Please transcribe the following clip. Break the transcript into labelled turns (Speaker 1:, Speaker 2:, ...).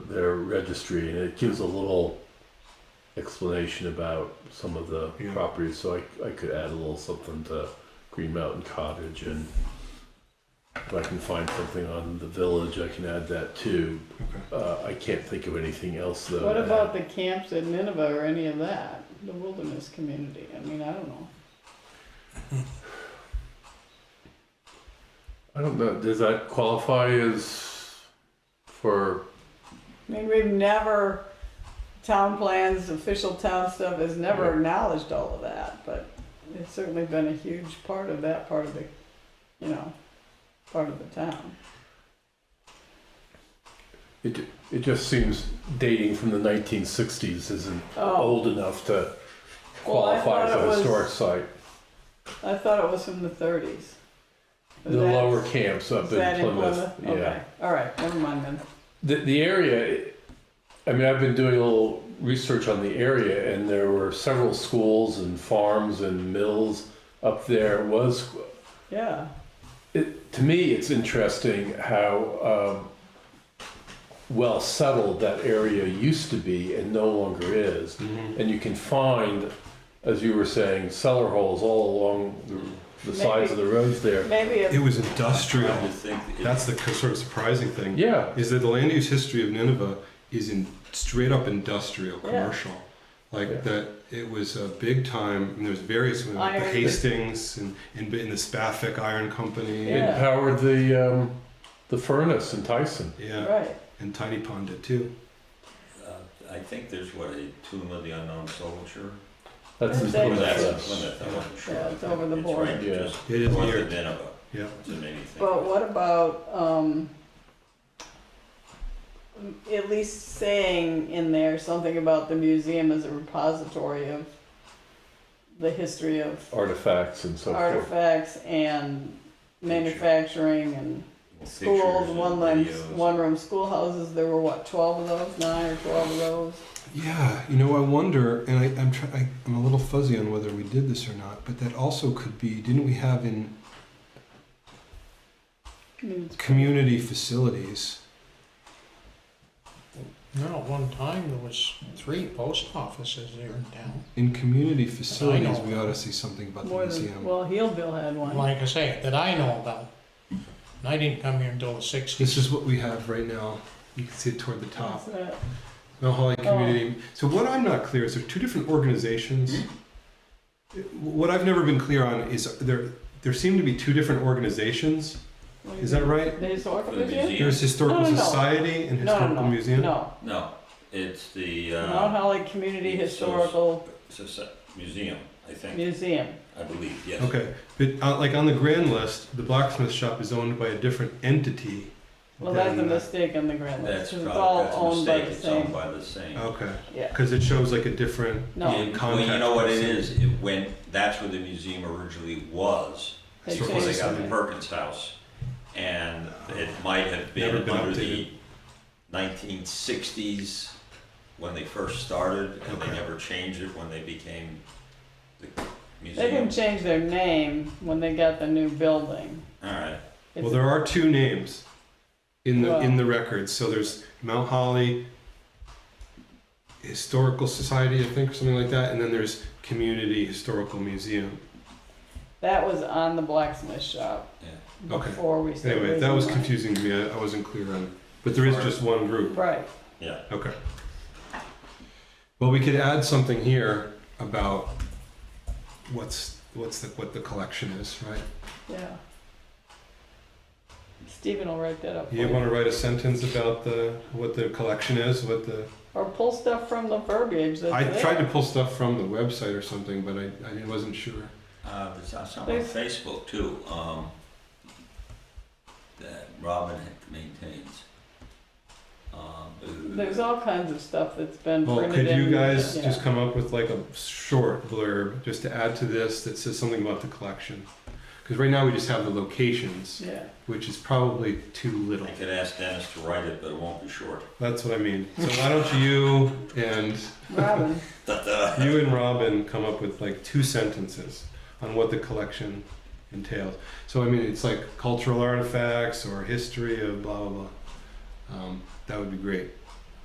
Speaker 1: their registry, and it gives a little explanation about some of the
Speaker 2: Yeah.
Speaker 1: properties. So I, I could add a little something to Green Mountain Cottage, and if I can find something on the village, I can add that too.
Speaker 2: Okay.
Speaker 1: Uh, I can't think of anything else though.
Speaker 3: What
Speaker 1: to
Speaker 3: about
Speaker 1: add.
Speaker 3: the camps at Nineveh or any of that, the wilderness community? I mean, I don't know.
Speaker 1: I don't know. Does that qualify as for?
Speaker 3: I mean, we've never, town plans, official town stuff has never
Speaker 1: Yeah.
Speaker 3: acknowledged all of that, but it's certainly been a huge part of that part of the, you know, part of the town.
Speaker 1: It, it just seems dating from the 1960s isn't
Speaker 3: Oh,
Speaker 1: old enough to
Speaker 3: Well, I
Speaker 1: qualify as
Speaker 3: thought it
Speaker 1: a
Speaker 3: was-
Speaker 1: historic site.
Speaker 3: I thought it was from the thirties.
Speaker 1: The lower camps up in Plymouth, yeah.
Speaker 3: Okay, all right, never mind then.
Speaker 1: The, the area, I mean, I've been doing a little research on the area and there were several schools and farms and mills up there. It was,
Speaker 3: Yeah,
Speaker 1: it, to me, it's interesting how, um, well settled that area used to be and no longer is. And you can find, as you were saying, cellar holes all along the, the sides of the roads there.
Speaker 3: maybe
Speaker 2: It
Speaker 3: it's,
Speaker 2: was
Speaker 4: I
Speaker 2: industrial.
Speaker 4: would think it-
Speaker 2: That's the c- sort of surprising thing.
Speaker 1: Yeah,
Speaker 2: Is that the land use history of Nineveh is in straight up industrial, commercial. Like
Speaker 1: Yeah.
Speaker 2: that, it was a big time, and there was various women, like the
Speaker 3: Iron.
Speaker 2: Hastings and, and in the Spaffic Iron Company.
Speaker 1: it
Speaker 3: Yeah.
Speaker 1: powered the, um, the furnace in Tyson.
Speaker 2: Yeah,
Speaker 3: right,
Speaker 2: and Tiny Pond did too.
Speaker 4: uh, I think there's what a tomb of the unknown soldier.
Speaker 1: That's
Speaker 3: That's
Speaker 1: his
Speaker 3: it.
Speaker 4: Or that's in
Speaker 1: process.
Speaker 4: Plymouth. I wasn't sure.
Speaker 3: Yeah, it's over the
Speaker 4: It's
Speaker 3: border.
Speaker 4: right
Speaker 1: Yeah.
Speaker 4: just
Speaker 2: It is
Speaker 4: north
Speaker 2: near.
Speaker 4: of Nineveh.
Speaker 2: Yeah.
Speaker 4: It's amazing.
Speaker 3: but what about, um, at least saying in there something about the museum as a repository of the history of
Speaker 1: Artifacts and so forth.
Speaker 3: artifacts and manufacturing and
Speaker 4: Pictures
Speaker 3: schools,
Speaker 4: and
Speaker 3: one room,
Speaker 4: videos.
Speaker 3: one room schoolhouses, there were what, twelve of those, nine or twelve of those?
Speaker 2: Yeah, you know, I wonder, and I, I'm try, I, I'm a little fuzzy on whether we did this or not, but that also could be. Didn't we have in
Speaker 3: I mean, it's-
Speaker 2: community facilities?
Speaker 5: No, at one time there was three post offices here in town.
Speaker 2: In community facilities,
Speaker 5: know.
Speaker 2: we ought to see something about the
Speaker 3: More
Speaker 2: museum.
Speaker 3: than, well, Healdville had one.
Speaker 5: Like I say, that I know about. And I didn't come here until the sixties.
Speaker 2: This is what we have right now. You can see it toward the top.
Speaker 3: That's it.
Speaker 2: Mount Holly
Speaker 3: Oh.
Speaker 2: Community. So what I'm not clear is there are two different organizations. What I've never been clear on is there there seem to be two different organizations. Is that right?
Speaker 3: The historical
Speaker 4: For the
Speaker 3: museum?
Speaker 4: museum?
Speaker 2: There's Historical
Speaker 3: No, no, no.
Speaker 2: Society and
Speaker 3: No,
Speaker 2: Historical
Speaker 3: no, no,
Speaker 2: Museum.
Speaker 3: no.
Speaker 4: No, it's the
Speaker 3: Mount
Speaker 4: uh,
Speaker 3: Holly Community
Speaker 4: it's those-
Speaker 3: Historical
Speaker 4: Soci- museum. I think.
Speaker 3: Museum.
Speaker 4: I believe. Yes.
Speaker 2: Okay, but uh, like on the grand list, the blacksmith shop is owned by a different entity.
Speaker 3: Well, that's a
Speaker 2: than-
Speaker 3: mistake on the grand
Speaker 4: That's
Speaker 3: list, 'cause
Speaker 4: probably
Speaker 3: it's all
Speaker 4: that's a
Speaker 3: owned by
Speaker 4: mistake.
Speaker 3: the
Speaker 4: it's owned
Speaker 3: same,
Speaker 4: by the same.
Speaker 2: Okay,
Speaker 3: yeah,
Speaker 2: because it shows like a different.
Speaker 3: no.
Speaker 4: Yeah, well, you know
Speaker 2: Oh, contact
Speaker 4: what it
Speaker 2: person.
Speaker 4: is. It went. That's where the museum originally was.
Speaker 3: They
Speaker 2: Sure,
Speaker 4: Because they
Speaker 3: changed
Speaker 4: got the
Speaker 3: it.
Speaker 4: Perkins House, and it might have
Speaker 2: Never
Speaker 4: been
Speaker 2: been
Speaker 4: under the
Speaker 2: updated.
Speaker 4: 1960s when they first started, and they
Speaker 2: Okay.
Speaker 4: never changed it when they became the
Speaker 3: They
Speaker 4: museum.
Speaker 3: didn't change their name when they got the new building.
Speaker 4: All right.
Speaker 3: It's-
Speaker 2: Well, there are two names in the in
Speaker 3: Well-
Speaker 2: the records. So there's Mount Holly Historical Society, I think, or something like that, and then there's Community Historical Museum.
Speaker 3: That was on the blacksmith shop
Speaker 4: Yeah.
Speaker 2: Okay.
Speaker 3: before we started.
Speaker 2: Anyway, that was
Speaker 3: raising money.
Speaker 2: confusing to me. I, I wasn't clear on. it. But there is just one group.
Speaker 3: Right,
Speaker 4: Yeah.
Speaker 2: Okay. Well, we could add something here about what's what's the what the collection is, right?
Speaker 3: yeah. Stephen will write that up for
Speaker 2: You
Speaker 3: you,
Speaker 2: want to write a sentence about the what the collection is, what the
Speaker 3: or pull stuff from the verbiage
Speaker 2: I
Speaker 3: that's
Speaker 2: tried
Speaker 3: there.
Speaker 2: to pull stuff from the website or something, but I, I wasn't sure.
Speaker 4: Uh, there's uh, something on Facebook too, um, that Robin maintains. Um,
Speaker 3: There's all kinds of stuff that's been
Speaker 2: Well,
Speaker 3: printed
Speaker 2: could
Speaker 3: in.
Speaker 2: you guys
Speaker 3: yeah.
Speaker 2: just come up with like a short blurb just to add to this that says something about the collection? Because right now we just have the locations,
Speaker 3: Yeah,
Speaker 2: which is probably too little.
Speaker 4: I could ask Dennis to write it, but it won't be short.
Speaker 2: That's what I mean. So why don't you and
Speaker 3: Robin,
Speaker 4: Da-da.
Speaker 2: you and Robin come up with like two sentences on what the collection entails? So I mean, it's like cultural artifacts or history of blah blah blah. Um, that would be great.